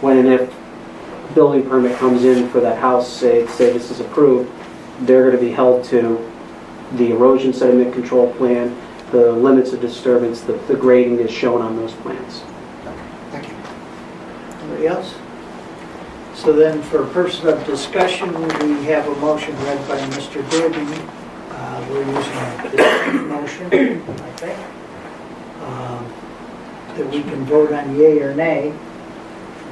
when and if building permit comes in for that house, say, say this is approved, they're gonna be held to the erosion sediment control plan, the limits of disturbance, the, the grading is shown on those plans. Thank you. Anybody else? So then, for purpose of discussion, we have a motion read by Mr. Dubin. Uh, We're using this motion, I think, um, that we can vote on yea or nay.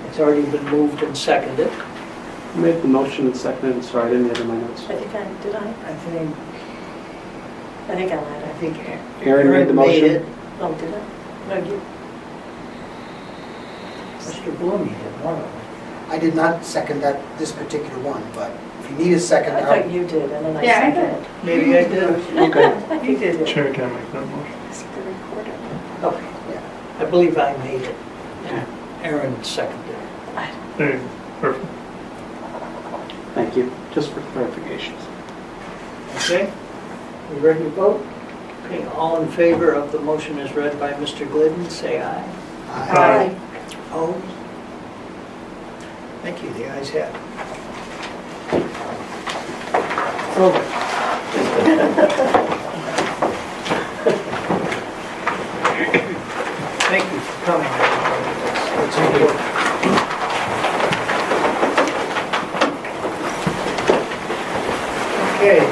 It's already been moved and seconded. I made the motion and seconded, and sorry, I didn't enter my notes. I think I, did I? I think, I think I lied. I think Aaron made the Aaron made motion. it. Oh, did I? No, you, Mr. Bloom, you did one of them. I did not second that, this particular one, but if you need a second, I I'll- thought you did, and then I Yeah, I seconded. Maybe I did. Okay, Yeah, I did. You did it. Chair can make that motion. Is it the recorder? Okay. I believe I made it. Aaron seconded. There, you go. perfect. thank you, just for clarification. Okay, we ready to vote? Okay, all in favor of the motion as read by Mr. Glidden, say aye. I- Opposed? Thank you, the ayes have. it. It's over. Thank you for coming. It's important. Okay.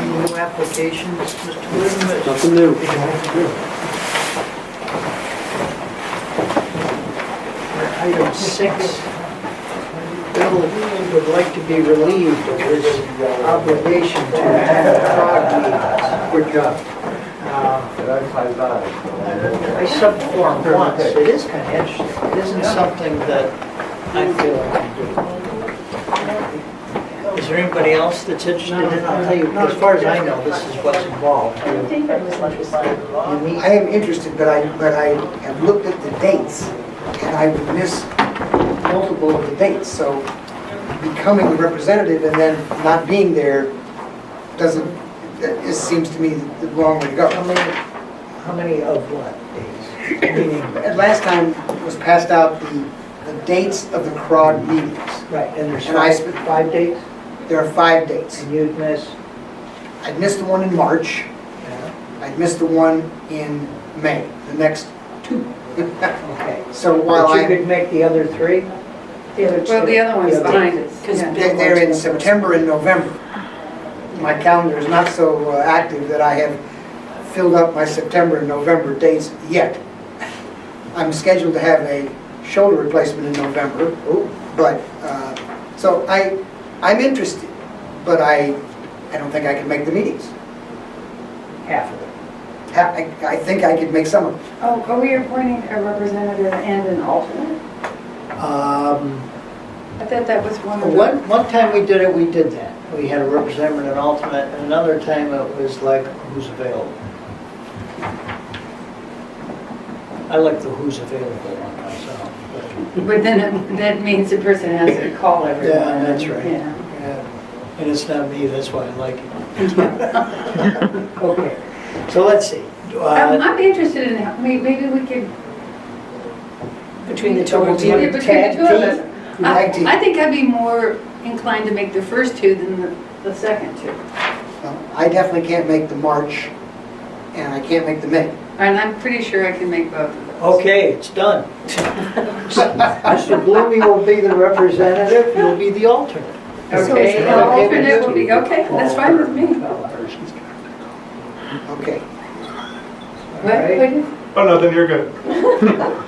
New applications, Mr. Whitman. Nothing new. Item six, Bill, if you would like to be relieved of his obligation to attend CROG meetings. Good job. Uh, And I find that. I subformed once, it is kind of interesting, it isn't something that I feel I can do. Is there anybody else that's interested in it? I'll tell you, as far as I know, this is what's involved. I think I was interested. You meet I am interested, but I, but I have looked at the dates, and I would miss multiple of the dates, so becoming the representative and then not being there doesn't, it seems to me the wrong way to How go. many, how many of what days? Meaning, And last time was passed out the, the dates of the CROG meetings. right, and there's And I five, spent- five days, There are five dates. and you'd miss, I missed the one in March, yeah, I missed the one in May, the next two. okay. So while But you I, could make the other three? The other two. Well, the other one's Yeah. behind us. Because yeah. they're they're in September and November. My calendar is not so uh, active that I have filled up my September and November dates yet. I'm scheduled to have a shoulder replacement in November, Ooh, but, uh, so I, I'm interested, but I, I don't think I can make the meetings. half of it. Ha- I I think I could make some of them. Oh, are we appointing a representative and an alternate? Um, I thought that was one of the. One, one time we did it, we did that. We had a representative and an alternate, and another time it was like, who's available? I like the who's available one myself, but. But then it- that means the person has to call everyone. Yeah, that's right. Yeah. Yeah, And it's not me, that's why I like it. Okay, so let's see. Uh, Do Um, I- I'd be interested in, how- may- maybe we could. Between the two of Yeah, you. Between the two of us. I Tag team. I think I'd be more inclined to make the first two than the, the second two. No, I definitely can't make the March, and I can't make the May. And I'm pretty sure I can make both of those. Okay, it's done. Mr. Bloomy will be the representative, you'll be the alternate. Okay, Okay. the alternate will be, okay, that's fine with me. Okay. All What, right? Oh, what- no, then you're good.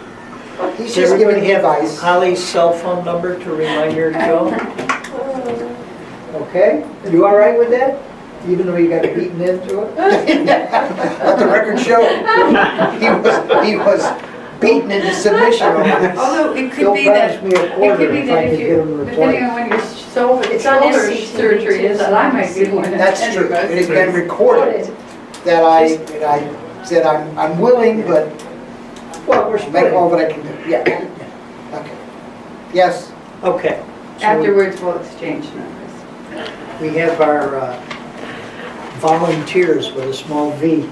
He's Does just giving everybody me have advice. Holly's cell phone number to remind her to go? Oh. Okay, you all right with that? Even though you got beaten into it? Let the record show, he was, he was beaten into submission on this. Although it They'll could be that, branch me a it could quarter be if I that could if get them you, depending replaced. on when your shoulder, It's on shoulder SCTV surgery is, too, that I might be so one of That's true, anybody. it has been recorded that I, that I said I'm, I'm willing, but Well, we're I'll make all splitting. that I can do, yeah. Okay. Yes, Okay. so Afterwards, we'll exchange numbers. We have our uh, volunteers with a small V.